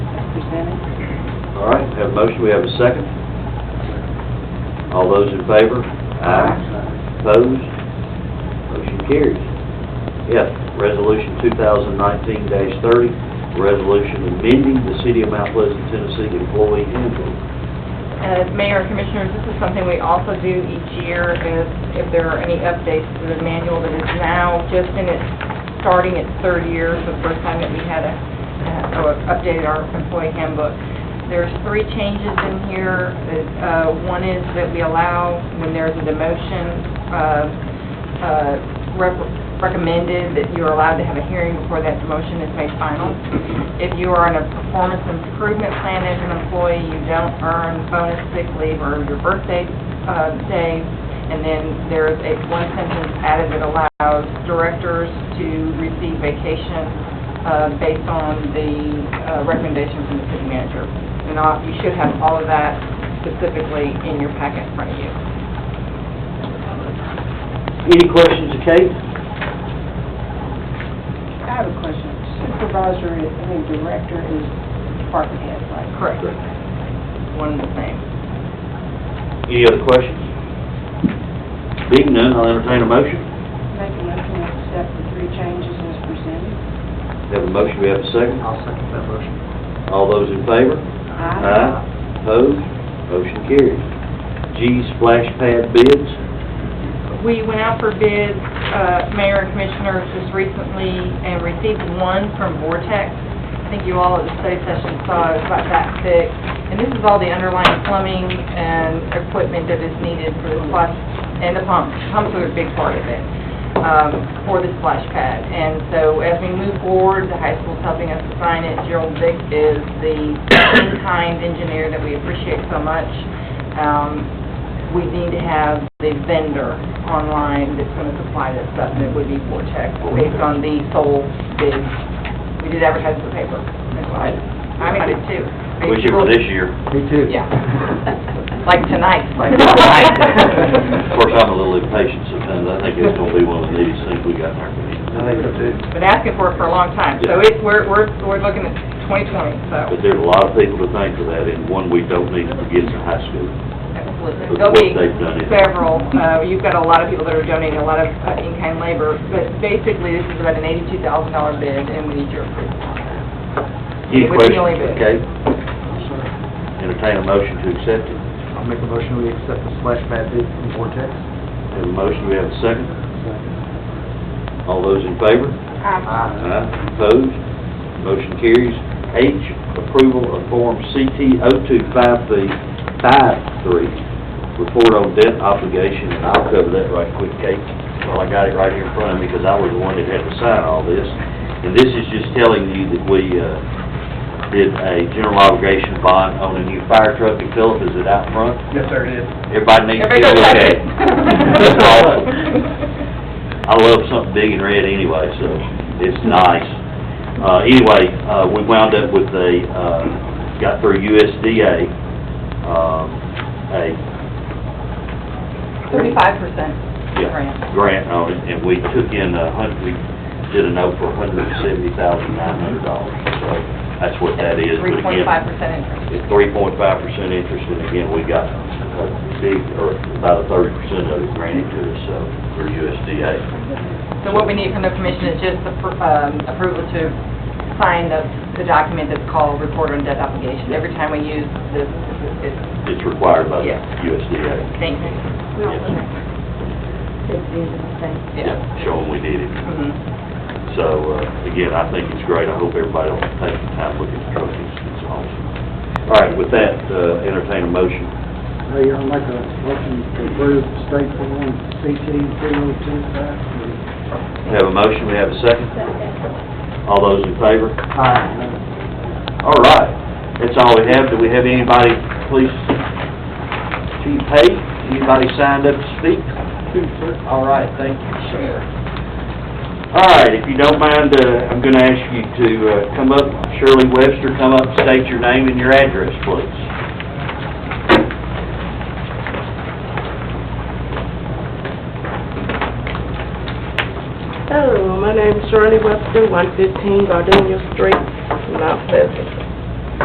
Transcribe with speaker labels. Speaker 1: presented.
Speaker 2: All right, have a motion, we have a second. All those in favor? Opposed? Motion carries. F, Resolution 2019-30, resolution amending the City of Mount Pleasant, Tennessee employee handbook.
Speaker 3: Uh, Mayor, Commissioners, this is something we also do each year, is if there are any updates to the manual that is now just in its, starting its third year, so the first time that we had a, uh, or updated our employee handbook. There's three changes in here. Uh, One is that we allow, when there's a demotion, uh, uh, rep- recommended that you're allowed to have a hearing before that demotion is made final. If you are on a performance improvement plan as an employee, you don't earn bonus sick leave or your birthday uh, day. And then there's a one sentence added that allows directors to receive vacation uh, based on the uh, recommendation from the city manager. And all- you should have all of that specifically in your packet in front of you.
Speaker 2: Any questions, Kate?
Speaker 1: I have a question. Supervisor, is- I mean, director is department head, right?
Speaker 3: Correct. One and the same.
Speaker 2: Any other questions? Being none, I'll entertain a motion.
Speaker 1: Make a motion to accept the three changes as presented.
Speaker 2: Have a motion, we have a second.
Speaker 4: I'll second that motion.
Speaker 2: All those in favor? Opposed? Motion carries. G, splash pad bids.
Speaker 3: We went out for bids, uh, Mayor and Commissioners, just recently, and received one from Vortex. I think you all at the study session saw it was about that thick. And this is all the underlying plumbing and equipment that is needed for the splash, and the pumps. Pumps are a big part of it, um, for the splash pad. And so as we move forward, the high school's helping us design it. Gerald Vick is the in-kind engineer that we appreciate so much. Um, we need to have the vendor online that's going to supply this stuff, and it would be Vortex, based on the sole bid. We did advertise in the paper, that's why, I'm excited too.
Speaker 2: Wish it were this year.
Speaker 4: Me too.
Speaker 3: Yeah. Like tonight.
Speaker 4: Like tonight.
Speaker 2: Of course, I'm a little impatient sometimes. I think it's gonna be one of these things we got in our community.
Speaker 4: I think so too.
Speaker 3: Been asking for it for a long time, so
Speaker 2: Yeah.
Speaker 3: it, we're, we're, we're looking at 2020, so,
Speaker 2: But there's a lot of people to thank for that, and one we don't need to forget is the high school.
Speaker 3: absolutely.
Speaker 2: Look
Speaker 3: There'll
Speaker 2: what
Speaker 3: be
Speaker 2: they've done here.
Speaker 3: several, uh, you've got a lot of people that are donating, a lot of uh, in-kind labor, but basically, this is about an $82,000 bid, and we need your approval on that.
Speaker 2: Any
Speaker 3: It was the
Speaker 2: questions?
Speaker 3: only bid.
Speaker 2: Okay,
Speaker 4: Sure.
Speaker 2: entertain a motion to accept it.
Speaker 4: I'll make a motion, we accept the slash pad bid from Vortex.
Speaker 2: Have a motion, we have a second. All those in favor? Aye. Opposed? Motion carries. H, approval of Form oh CT 0253, report on debt obligation, and I'll cover that right quick, Kate, while I got it right here in front of me, because I was the one that had to sign all this. And this is just telling you that we uh, did a general obligation bond on a new fire truck, and Philip, is it out front?
Speaker 4: Yes, sir, it is.
Speaker 2: Everybody needs to
Speaker 3: Everybody
Speaker 2: get a
Speaker 3: go
Speaker 2: look
Speaker 3: check
Speaker 2: at
Speaker 3: it.
Speaker 2: it. It's awesome. I love something big and red anyway, so it's nice. Uh, anyway, uh, we wound up with a, uh, got through USDA, um, a,
Speaker 3: 35% grant.
Speaker 2: yeah, grant on it, and we took in a hundred, we did a note for a hundred and seventy thousand nine hundred dollars, so that's what that is. But
Speaker 3: Three
Speaker 2: again,
Speaker 3: point five percent interest.
Speaker 2: It's three point five percent interest, and again, we got a big, or about a thirty percent of it granted to us, so, for USDA.
Speaker 3: So what we need from the commission is just the pr- um, approval to sign the, the document that's called report on debt obligation. Every time we use this, it's,
Speaker 2: It's required by the
Speaker 3: Yeah.
Speaker 2: USDA.
Speaker 3: thank you. Yeah.
Speaker 2: Showing we did it.
Speaker 3: Mhm.
Speaker 2: So, uh, again, I think it's great. I hope everybody will take the time looking at the truck. It's it's awesome. All right, with that, uh, entertain a motion.
Speaker 5: Mayor, I'll make a motion to approve state form CT three oh two five.
Speaker 2: We have a motion, we have a second. All those in favor? All right, that's all we have. Do we have anybody, please, Chief Hay, anybody signed up to speak? All right, thank you, sir. All right, if you don't mind, uh, I'm going to ask you to uh, come up, Shirley Webster, come up, state your name and your address, please.
Speaker 6: Hello, my name's Shirley Webster, 115 Gardenia Street, Mount Pleasant.